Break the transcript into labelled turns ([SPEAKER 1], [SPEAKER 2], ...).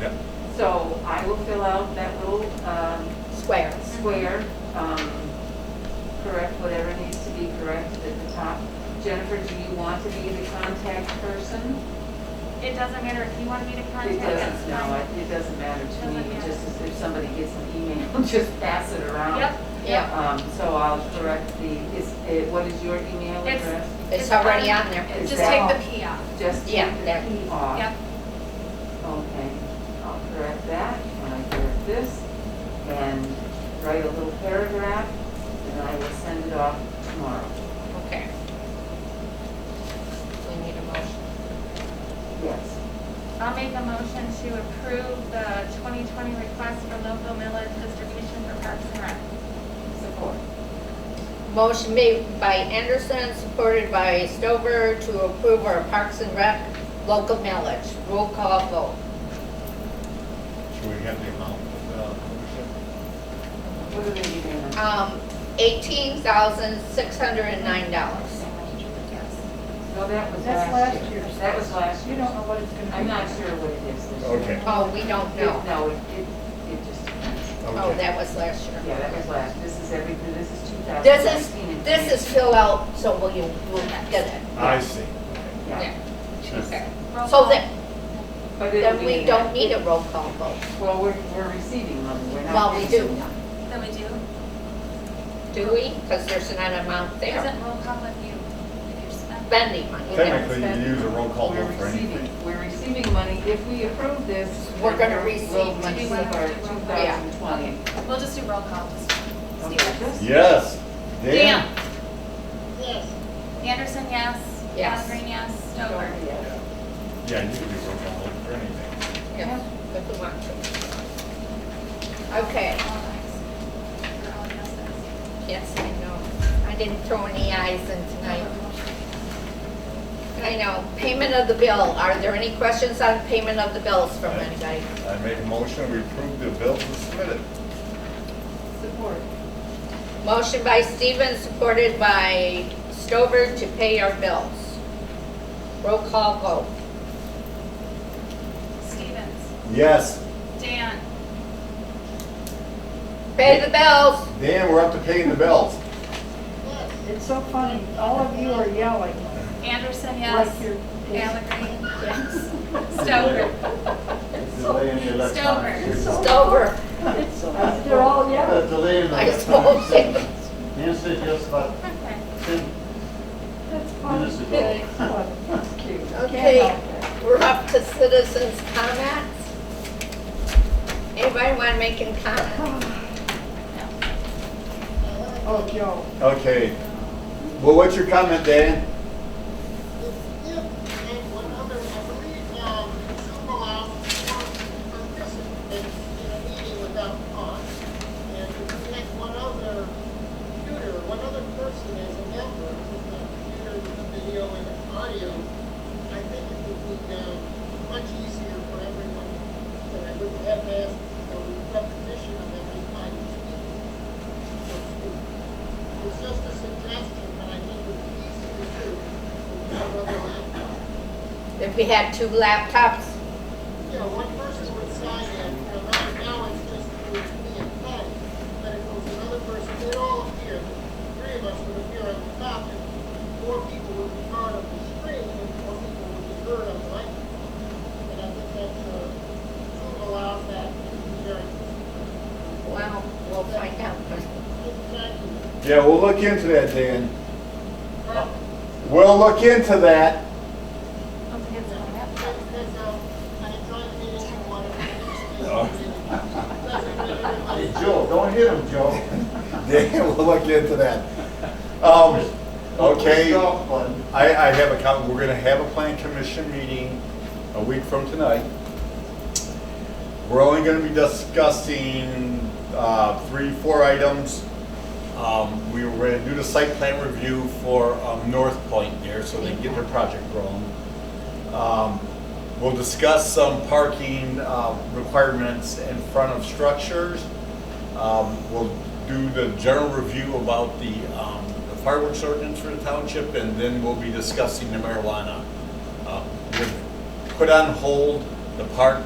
[SPEAKER 1] Yeah.
[SPEAKER 2] So I will fill out that little um,
[SPEAKER 3] Square.
[SPEAKER 2] square, um, correct whatever needs to be corrected at the top. Jennifer, do you want to be the contact person?
[SPEAKER 4] It doesn't matter if you want me to
[SPEAKER 2] It
[SPEAKER 4] contact, that's
[SPEAKER 2] doesn't, no,
[SPEAKER 4] fine.
[SPEAKER 2] it- it doesn't matter to me,
[SPEAKER 4] Doesn't matter.
[SPEAKER 2] just as if somebody gets an email, just pass it around.
[SPEAKER 4] Yep,
[SPEAKER 3] Yeah,
[SPEAKER 2] Um, So I'll direct the, is, eh, what is your email
[SPEAKER 4] It's-
[SPEAKER 2] address?
[SPEAKER 3] it's already on there.
[SPEAKER 2] Is
[SPEAKER 4] just
[SPEAKER 2] that-
[SPEAKER 4] take the P out.
[SPEAKER 2] Just take
[SPEAKER 3] Yeah,
[SPEAKER 2] the E
[SPEAKER 3] that-
[SPEAKER 2] P off.
[SPEAKER 4] Yep,
[SPEAKER 2] Okay, I'll correct that, and I correct this, and write a little paragraph, and I will send it off tomorrow.
[SPEAKER 3] Okay. We need a motion.
[SPEAKER 2] Yes.
[SPEAKER 4] I'll make a motion to approve the 2020 request for local millage distribution for Parks and Rec.
[SPEAKER 2] Support.
[SPEAKER 3] Motion made by Anderson, supported by Stover to approve our Parks and Rec local mileage. Roll call vote.
[SPEAKER 1] Should we have the amount of uh, ownership?
[SPEAKER 2] What are they giving us?
[SPEAKER 3] Um, eighteen thousand, six hundred and nine dollars.
[SPEAKER 4] Yes.
[SPEAKER 2] No, that was
[SPEAKER 5] That's
[SPEAKER 2] last
[SPEAKER 5] last
[SPEAKER 2] year.
[SPEAKER 5] year's.
[SPEAKER 2] That was last
[SPEAKER 5] You
[SPEAKER 2] year.
[SPEAKER 5] don't know what it's gonna be.
[SPEAKER 2] I'm not sure what it is this year.
[SPEAKER 1] Okay.
[SPEAKER 3] Oh, we don't
[SPEAKER 2] It-
[SPEAKER 3] know.
[SPEAKER 2] No, it, it it just depends.
[SPEAKER 3] Oh, that was last year.
[SPEAKER 2] Yeah, that was last, this is everything, this is
[SPEAKER 3] This
[SPEAKER 2] 2019.
[SPEAKER 3] is, this is fill out, so will you, will get it?
[SPEAKER 1] I see.
[SPEAKER 2] Yeah,
[SPEAKER 3] Okay.
[SPEAKER 4] Roll
[SPEAKER 3] So
[SPEAKER 4] call.
[SPEAKER 3] that,
[SPEAKER 2] but it'll
[SPEAKER 3] then
[SPEAKER 2] be
[SPEAKER 3] we
[SPEAKER 2] in
[SPEAKER 3] don't
[SPEAKER 2] that-
[SPEAKER 3] need a roll call vote.
[SPEAKER 2] Well, we're, we're receiving money, we're not.
[SPEAKER 3] Well, we do,
[SPEAKER 2] receiving.
[SPEAKER 4] Then we do.
[SPEAKER 3] do we? Because there's an amount there.
[SPEAKER 4] Isn't roll call with you? if you're spending?
[SPEAKER 3] Spending money.
[SPEAKER 1] Technically, you use a roll call
[SPEAKER 2] We're
[SPEAKER 1] vote for anything.
[SPEAKER 2] receiving, we're receiving money. If we approve this.
[SPEAKER 3] We're gonna
[SPEAKER 2] we'll-
[SPEAKER 3] receive
[SPEAKER 2] We'll
[SPEAKER 3] money.
[SPEAKER 2] receive our 2020.
[SPEAKER 4] We'll just do roll call, just.
[SPEAKER 2] Okay,
[SPEAKER 4] Stevens.
[SPEAKER 2] just-
[SPEAKER 1] Yes.
[SPEAKER 3] Dan?
[SPEAKER 4] Yes. Anderson, yes.
[SPEAKER 3] Yes.
[SPEAKER 4] Allen, yes. Stover.
[SPEAKER 2] Yeah.
[SPEAKER 1] Yeah, you can do roll call vote for anything.
[SPEAKER 3] Yeah, if we want to. Okay,
[SPEAKER 4] All ayes. Or all yeses.
[SPEAKER 3] yes, I know. I didn't throw any eyes in tonight. I know. Payment of the bill. Are there any questions on payment of the bills from anybody?
[SPEAKER 1] I make a motion, we approve the bills as submitted.
[SPEAKER 2] Support.
[SPEAKER 3] Motion by Stevens, supported by Stover to pay our bills. Roll call vote.
[SPEAKER 4] Stevens.
[SPEAKER 1] Yes.
[SPEAKER 4] Dan.
[SPEAKER 3] Pay the bills.
[SPEAKER 1] Dan, we're up to paying the bills.
[SPEAKER 5] It's so funny, all of you are yelling.
[SPEAKER 4] Anderson,
[SPEAKER 5] like
[SPEAKER 4] yes.
[SPEAKER 5] you're-
[SPEAKER 4] Allegra, yes.
[SPEAKER 6] Delay in the electronic.
[SPEAKER 5] It's so-
[SPEAKER 3] Stover,
[SPEAKER 5] it's so- They're all
[SPEAKER 6] Uh,
[SPEAKER 5] yelling.
[SPEAKER 6] Delay in the
[SPEAKER 3] I
[SPEAKER 6] electronic.
[SPEAKER 3] suppose.
[SPEAKER 6] Nancy said just about
[SPEAKER 4] Stover.
[SPEAKER 6] ten
[SPEAKER 5] That's funny.
[SPEAKER 6] minutes ago.
[SPEAKER 5] It's funny. It's cute. Can't
[SPEAKER 3] Okay.
[SPEAKER 5] help it.
[SPEAKER 3] We're up to citizens' comments. Anybody want to make any comment?
[SPEAKER 5] Oh, Joe.
[SPEAKER 1] Okay. Well, what's your comment, Dan?
[SPEAKER 7] and one other, I believe, um, Zoom allows one person in in a meeting without cause. And if you make one other computer, one other person as a member with a computer with a video and audio, I think it would be um, much easier for everyone. And I wouldn't have to ask for repetition of every time you speak. So it's- It's just a suggestion, but I think it would be easier to do without other laptops.
[SPEAKER 3] If we had two laptops,
[SPEAKER 7] Yeah, one person would sign in, and right now it's just me and Patty, but if it was another person, they'd all appear, three of us would appear on the top, and four people would be part of the screen, and four people would be heard on the microphone. And I think that's, uh, Zoom allows that, it's very,
[SPEAKER 3] well, we'll find out.
[SPEAKER 7] it's not, even-
[SPEAKER 1] Yeah, we'll look into that, Dan.
[SPEAKER 7] uh,
[SPEAKER 1] We'll look into that.
[SPEAKER 7] that's, that's, um, I enjoy the meeting, I want to, doesn't really
[SPEAKER 6] Hey,
[SPEAKER 7] everybody.
[SPEAKER 6] Joe, don't hit him, Joe.
[SPEAKER 1] Dan, we'll look into that. Um, okay.
[SPEAKER 6] Golf button.
[SPEAKER 1] I, I have a comment, we're gonna have a plan commission meeting a week from tonight. We're only gonna be discussing, uh, three, four items. Um, we were gonna do the site plan review for, um, North Point there, so they can get their project rolling. Um, we'll discuss some parking, uh, requirements in front of structures. Um, We'll do the general review about the um, the fireworks ordinance for the township, and then we'll be discussing the marijuana. Uh, We've Put on hold the park